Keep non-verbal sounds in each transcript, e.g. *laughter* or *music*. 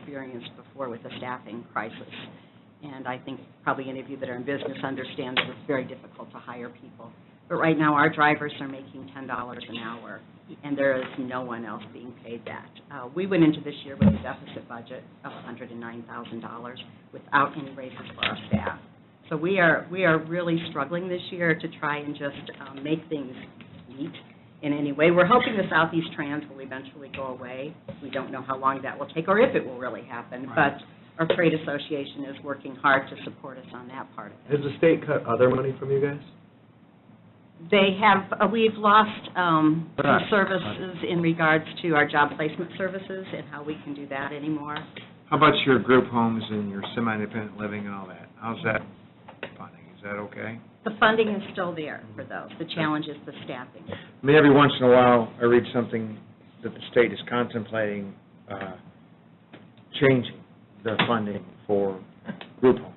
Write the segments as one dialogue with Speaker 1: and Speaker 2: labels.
Speaker 1: experienced before with the staffing crisis. And I think probably any of you that are in business understand that it's very difficult to hire people. But right now, our drivers are making $10 an hour, and there is no one else being paid that. Uh, We went into this year with a deficit budget of $109,000 without any raises for our staff. So we are, we are really struggling this year to try and just um, make things meet in any way. We're hoping the Southeast Trans will eventually go away. We don't know how long that will take or if it will really happen, but
Speaker 2: Right.
Speaker 1: our trade association is working hard to support us on that part of it.
Speaker 2: Has the state cut other money from you guys?
Speaker 1: They have, uh, we've lost um, some
Speaker 2: Right.
Speaker 1: services in regards to our job placement services and how we can do that anymore.
Speaker 3: How about your group homes and your semi-independent living and all that? How's that funding? Is that okay?
Speaker 1: The funding is still there for those. The challenge is the staffing.
Speaker 3: I mean, every once in a while, I read something that the state is contemplating, uh, changing the funding for group homes.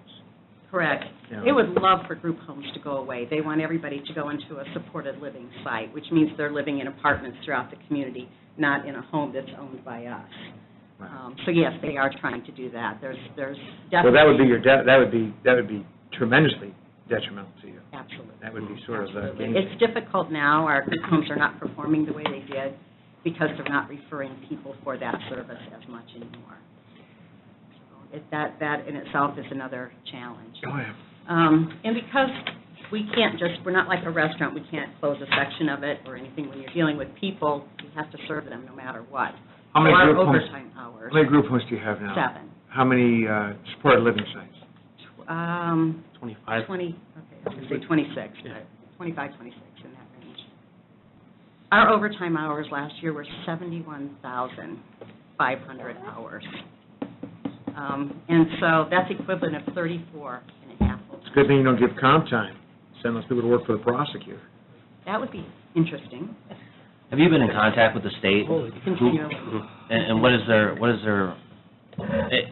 Speaker 1: Correct.
Speaker 3: Yeah.
Speaker 1: They would love for group homes to go away. They want everybody to go into a supported living site, which means they're living in apartments throughout the community, not in a home that's owned by us.
Speaker 3: Right.
Speaker 1: Um, So yes, they are trying to do that. There's, there's
Speaker 3: Well,
Speaker 1: definitely...
Speaker 3: that would be your, de- that would be, that would be tremendously detrimental to you.
Speaker 1: Absolutely.
Speaker 3: That would be sort of the
Speaker 1: Absolutely.
Speaker 3: game
Speaker 1: It's difficult now, our group homes are not performing the way they did because they're not referring people for that service as much anymore. So it- That, that in itself is another challenge.
Speaker 3: Oh, yeah.
Speaker 1: Um, And because we can't just, we're not like a restaurant, we can't close a section of it or anything. When you're dealing with people, you have to serve them no matter what.
Speaker 3: How many
Speaker 1: There are
Speaker 3: group homes,
Speaker 1: overtime hours,
Speaker 3: how many group homes do you have now?
Speaker 1: seven.
Speaker 3: How many, uh, supported living sites?
Speaker 1: Tw- um,
Speaker 2: Twenty-five.
Speaker 1: 20, okay, I was going to say 26, but 25, 26, in that range. Our overtime hours last year were 71,500 hours. Um, And so that's equivalent of 34 and a half. full-time.
Speaker 3: It's a good thing you don't give comp time. Send those people to work for the prosecutor.
Speaker 1: That would be interesting,
Speaker 4: Have you been in contact with the state?
Speaker 1: continually.
Speaker 4: And, and what is their, what is their, eh,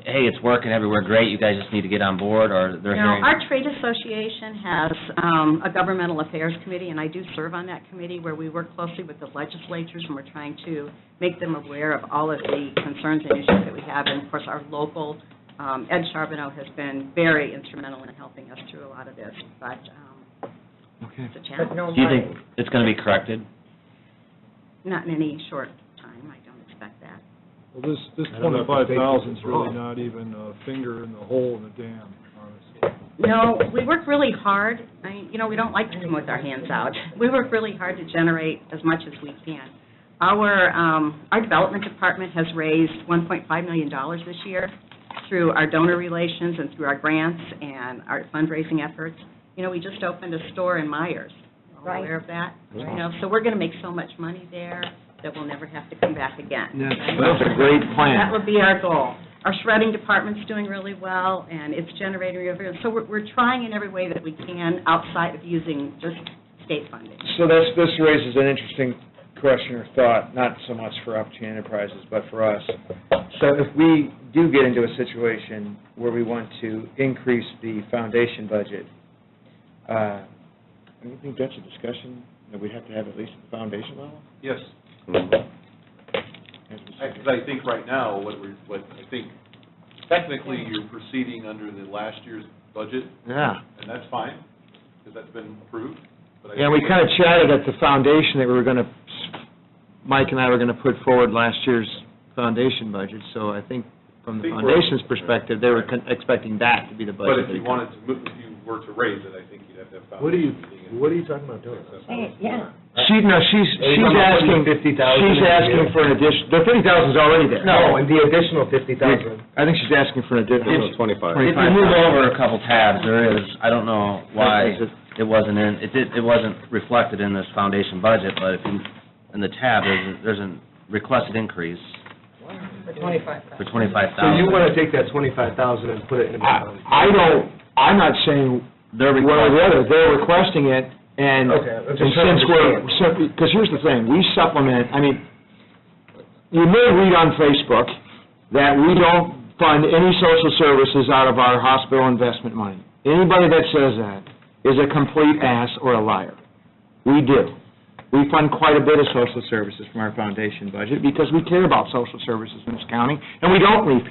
Speaker 4: hey, it's working everywhere, great, you guys just need to get on board, or they're
Speaker 1: Now,
Speaker 4: hearing?
Speaker 1: our trade association has um, a governmental affairs committee, and I do serve on that committee, where we work closely with the legislatures, and we're trying to make them aware of all of the concerns and issues that we have. And of course, our local, um, Ed Charbonneau has been very instrumental in helping us through a lot of this, but um,
Speaker 3: Okay.
Speaker 1: it's a challenge.
Speaker 4: Do you think it's gonna be corrected?
Speaker 1: Not in any short time, I don't expect that.
Speaker 5: Well, this, this
Speaker 3: I don't know if the
Speaker 5: twenty-five
Speaker 3: state
Speaker 5: thousand's
Speaker 3: is
Speaker 5: really
Speaker 3: wrong.
Speaker 5: not even a finger in the hole in the dam, honestly.
Speaker 1: No, we work really hard. I, you know, we don't like to come with our hands out. *laughs* We work really hard to generate as much as we can. Our, um, our development department has raised $1.5 million this year through our donor relations and through our grants and our fundraising efforts. You know, we just opened a store in Myers. You're all
Speaker 6: Right.
Speaker 1: Aware of that? You know, so we're going to make so much money there that we'll never have to come back again.
Speaker 3: Yeah,
Speaker 1: Right?
Speaker 3: That's a great
Speaker 1: That
Speaker 3: plan.
Speaker 1: would be our goal. Our shredding department's doing really well, and it's generating revenue. So we're, we're trying in every way that we can outside of using just state funding.
Speaker 3: So this, this raises an interesting question or thought, not so much for Opportunity Enterprises, but for us. So if we do get into a situation where we want to increase the foundation budget, uh, do you think that's a discussion that we have to have at least at the foundation level?
Speaker 7: Yes,
Speaker 3: As we said.
Speaker 7: because I think right now, what we're, what, I think technically you're proceeding under the last year's budget,
Speaker 3: Yeah.
Speaker 7: and that's fine, because that's been approved, but I.
Speaker 3: Yeah, we kind of chatted at the foundation that we were going to, Mike and I were going to put forward last year's foundation budget, so I think from the
Speaker 7: Think we're-
Speaker 3: foundation's perspective, they were con- expecting that to be the
Speaker 7: But
Speaker 3: budget.
Speaker 7: if you wanted to, move- if you were to raise it, I think you'd have to have.
Speaker 2: What are you,
Speaker 7: foundation meeting and-
Speaker 2: what are you talking about doing?
Speaker 6: Hey, yeah.
Speaker 3: She, no, she's,
Speaker 2: Are you
Speaker 3: she's
Speaker 2: talking about
Speaker 3: asking,
Speaker 2: putting 50,000
Speaker 3: she's
Speaker 2: in
Speaker 3: asking
Speaker 2: here?
Speaker 3: for an addition, the fifty thousand's already there.
Speaker 2: No, and the additional fifty thousand.
Speaker 3: I think she's asking for an additional.
Speaker 2: twenty-five.
Speaker 4: If you move over a couple tabs, there is, I don't know why
Speaker 3: Is it-
Speaker 4: it wasn't in, it did, it wasn't reflected in this foundation budget, but if you, in the tab, there's, a- there's a requested increase
Speaker 6: For twenty-five thousand.
Speaker 4: for twenty-five
Speaker 2: So
Speaker 4: thousand.
Speaker 2: you wanna take that twenty-five thousand and put it in the
Speaker 3: I,
Speaker 2: foundation?
Speaker 3: I don't, I'm not saying
Speaker 4: They're
Speaker 3: one or the other,
Speaker 4: requesting,
Speaker 3: they're requesting it, and,
Speaker 2: Okay,
Speaker 3: and
Speaker 2: I'm just trying
Speaker 3: since
Speaker 2: to
Speaker 3: we're, because here's the thing, we supplement, I mean, you may read on Facebook that we don't fund any social services out of our hospital investment money. Anybody that says that is a complete ass or a liar. We do. We fund quite a bit of social services from our foundation budget because we care about social services in this county, and we don't leave